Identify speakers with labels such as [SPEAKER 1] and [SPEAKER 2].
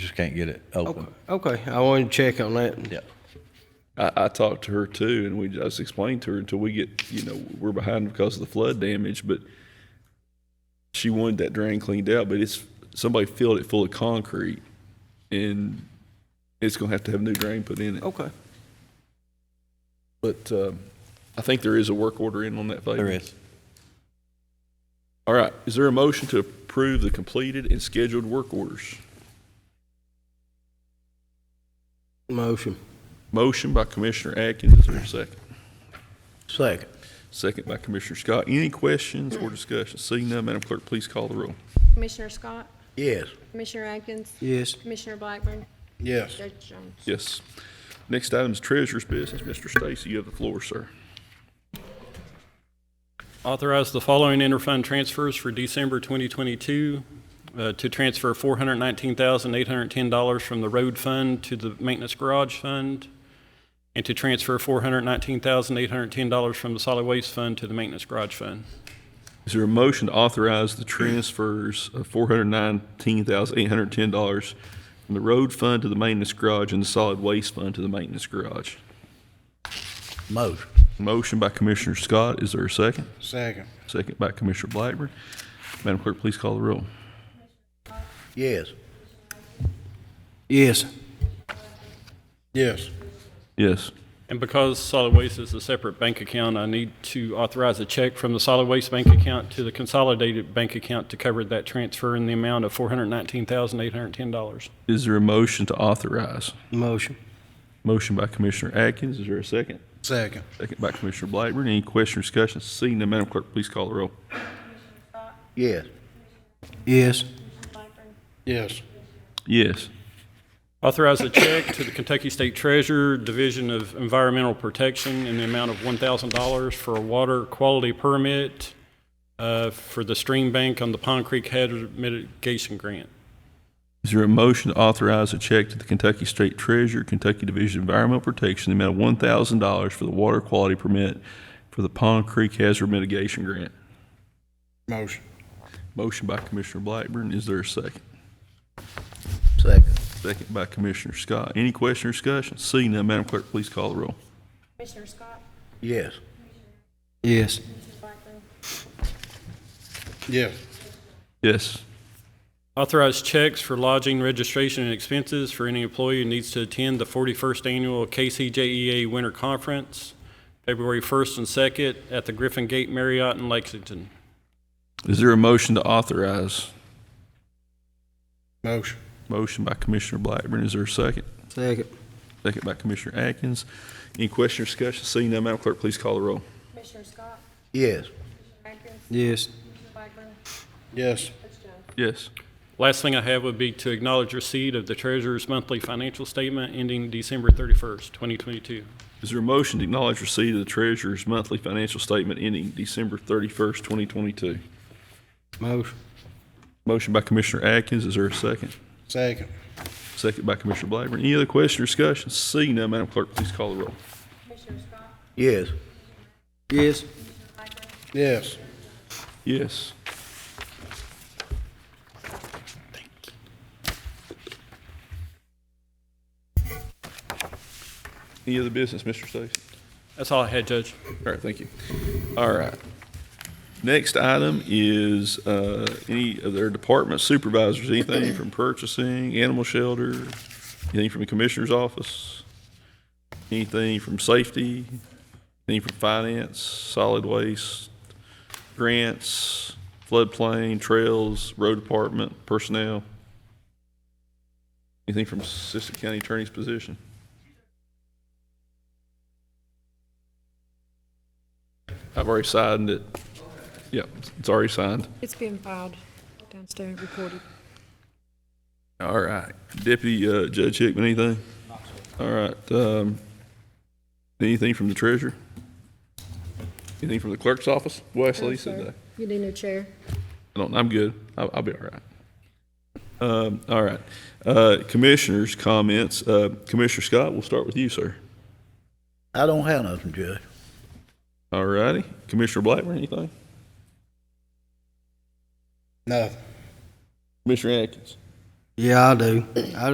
[SPEAKER 1] just can't get it open.
[SPEAKER 2] Okay, I wanted to check on that.
[SPEAKER 1] Yeah.
[SPEAKER 3] I, I talked to her too, and we just explained to her until we get, you know, we're behind because of the flood damage, but she wanted that drain cleaned out, but it's, somebody filled it full of concrete, and it's gonna have to have a new drain put in it.
[SPEAKER 1] Oh.
[SPEAKER 2] Okay.
[SPEAKER 3] But, um, I think there is a work order in on that favor.
[SPEAKER 1] There is.
[SPEAKER 3] All right, is there a motion to approve the completed and scheduled work orders?
[SPEAKER 2] Motion.
[SPEAKER 3] Motion by Commissioner Atkins, is there a second?
[SPEAKER 2] Second.
[SPEAKER 3] Second by Commissioner Scott. Any questions or discussion? Seeing none, Madam Clerk, please call the roll.
[SPEAKER 4] Commissioner Scott?
[SPEAKER 2] Yes.
[SPEAKER 4] Commissioner Atkins?
[SPEAKER 2] Yes.
[SPEAKER 4] Commissioner Blackburn?
[SPEAKER 2] Yes.
[SPEAKER 4] Judge Jones?
[SPEAKER 3] Yes. Next item is treasurer's business. Mr. Stacy, you have the floor, sir.
[SPEAKER 5] Authorize the following interfund transfers for December 2022, uh, to transfer $419,810 from the road fund to the maintenance garage fund, and to transfer $419,810 from the solid waste fund to the maintenance garage fund.
[SPEAKER 3] Is there a motion to authorize the transfers of four hundred nineteen thousand eight hundred ten dollars from the road fund to the maintenance garage and the solid waste fund to the maintenance garage?
[SPEAKER 2] Motion.
[SPEAKER 3] Motion by Commissioner Scott. Is there a second?
[SPEAKER 2] Second.
[SPEAKER 3] Second by Commissioner Blackburn. Madam Clerk, please call the roll.
[SPEAKER 2] Yes. Yes. Yes.
[SPEAKER 3] Yes.
[SPEAKER 5] And because solid waste is a separate bank account, I need to authorize a check from the solid waste bank account to the consolidated bank account to cover that transfer in the amount of $419,810.
[SPEAKER 3] Is there a motion to authorize?
[SPEAKER 2] Motion.
[SPEAKER 3] Motion by Commissioner Atkins. Is there a second?
[SPEAKER 2] Second.
[SPEAKER 3] Second by Commissioner Blackburn. Any question or discussion? Seeing none, Madam Clerk, please call the roll.
[SPEAKER 2] Yes. Yes.
[SPEAKER 4] Blackburn?
[SPEAKER 2] Yes.
[SPEAKER 3] Yes.
[SPEAKER 5] Authorize a check to the Kentucky State Treasurer, Division of Environmental Protection, in the amount of $1,000 for a water quality permit uh, for the stream bank on the Pond Creek Hazard Mitigation Grant.
[SPEAKER 3] Is there a motion to authorize a check to the Kentucky State Treasurer, Kentucky Division of Environmental Protection, in the amount of $1,000 for the water quality permit for the Pond Creek Hazard Mitigation Grant?
[SPEAKER 2] Motion.
[SPEAKER 3] Motion by Commissioner Blackburn. Is there a second?
[SPEAKER 2] Second.
[SPEAKER 3] Second by Commissioner Scott. Any question or discussion? Seeing none, Madam Clerk, please call the roll.
[SPEAKER 4] Commissioner Scott?
[SPEAKER 2] Yes. Yes.
[SPEAKER 4] Blackburn?
[SPEAKER 2] Yes.
[SPEAKER 3] Yes.
[SPEAKER 5] Authorize checks for lodging, registration, and expenses for any employee who needs to attend the 41st Annual KCJEA E Winter Conference, February 1st and 2nd, at the Griffin Gate Marriott in Lexington.
[SPEAKER 3] Is there a motion to authorize?
[SPEAKER 2] Motion.
[SPEAKER 3] Motion by Commissioner Blackburn. Is there a second?
[SPEAKER 2] Second.
[SPEAKER 3] Second by Commissioner Atkins. Any question or discussion? Seeing none, Madam Clerk, please call the roll.
[SPEAKER 4] Commissioner Scott?
[SPEAKER 2] Yes.
[SPEAKER 4] Atkins?
[SPEAKER 2] Yes.
[SPEAKER 4] Blackburn?
[SPEAKER 2] Yes.
[SPEAKER 4] Judge Jones?
[SPEAKER 3] Yes.
[SPEAKER 5] Last thing I have would be to acknowledge receipt of the treasurer's monthly financial statement ending December 31st, 2022.
[SPEAKER 3] Is there a motion to acknowledge receipt of the treasurer's monthly financial statement ending December 31st, 2022?
[SPEAKER 2] Motion.
[SPEAKER 3] Motion by Commissioner Atkins, is there a second?
[SPEAKER 2] Second.
[SPEAKER 3] Second by Commissioner Blackburn. Any other question or discussion? Seeing none, Madam Clerk, please call the roll.
[SPEAKER 4] Commissioner Scott?
[SPEAKER 2] Yes. Yes. Yes.
[SPEAKER 3] Yes. Any other business, Mr. Stacy?
[SPEAKER 5] That's all I had, Judge.
[SPEAKER 3] All right, thank you. All right. Next item is uh, any of their department supervisors, anything from purchasing, animal shelter, anything from the commissioner's office, anything from safety, anything from finance, solid waste, grants, floodplain, trails, road department, personnel? Anything from assistant county attorney's position? I've already signed it. Yep, it's already signed.
[SPEAKER 6] It's been filed downstairs, recorded.
[SPEAKER 3] All right. Deputy uh, Judge Hickman, anything? All right. um, Anything from the treasurer? Anything from the clerk's office? Wesley said that.
[SPEAKER 6] You need a new chair.
[SPEAKER 3] I don't, I'm good. I'll, I'll be all right. Um, All right. Uh, Commissioners' comments. Uh, Commissioner Scott, we'll start with you, sir.
[SPEAKER 7] I don't have nothing, Judge.
[SPEAKER 3] All righty. Commissioner Blackburn, anything?
[SPEAKER 2] Nothing.
[SPEAKER 3] Commissioner Atkins?
[SPEAKER 2] Yeah, I do. I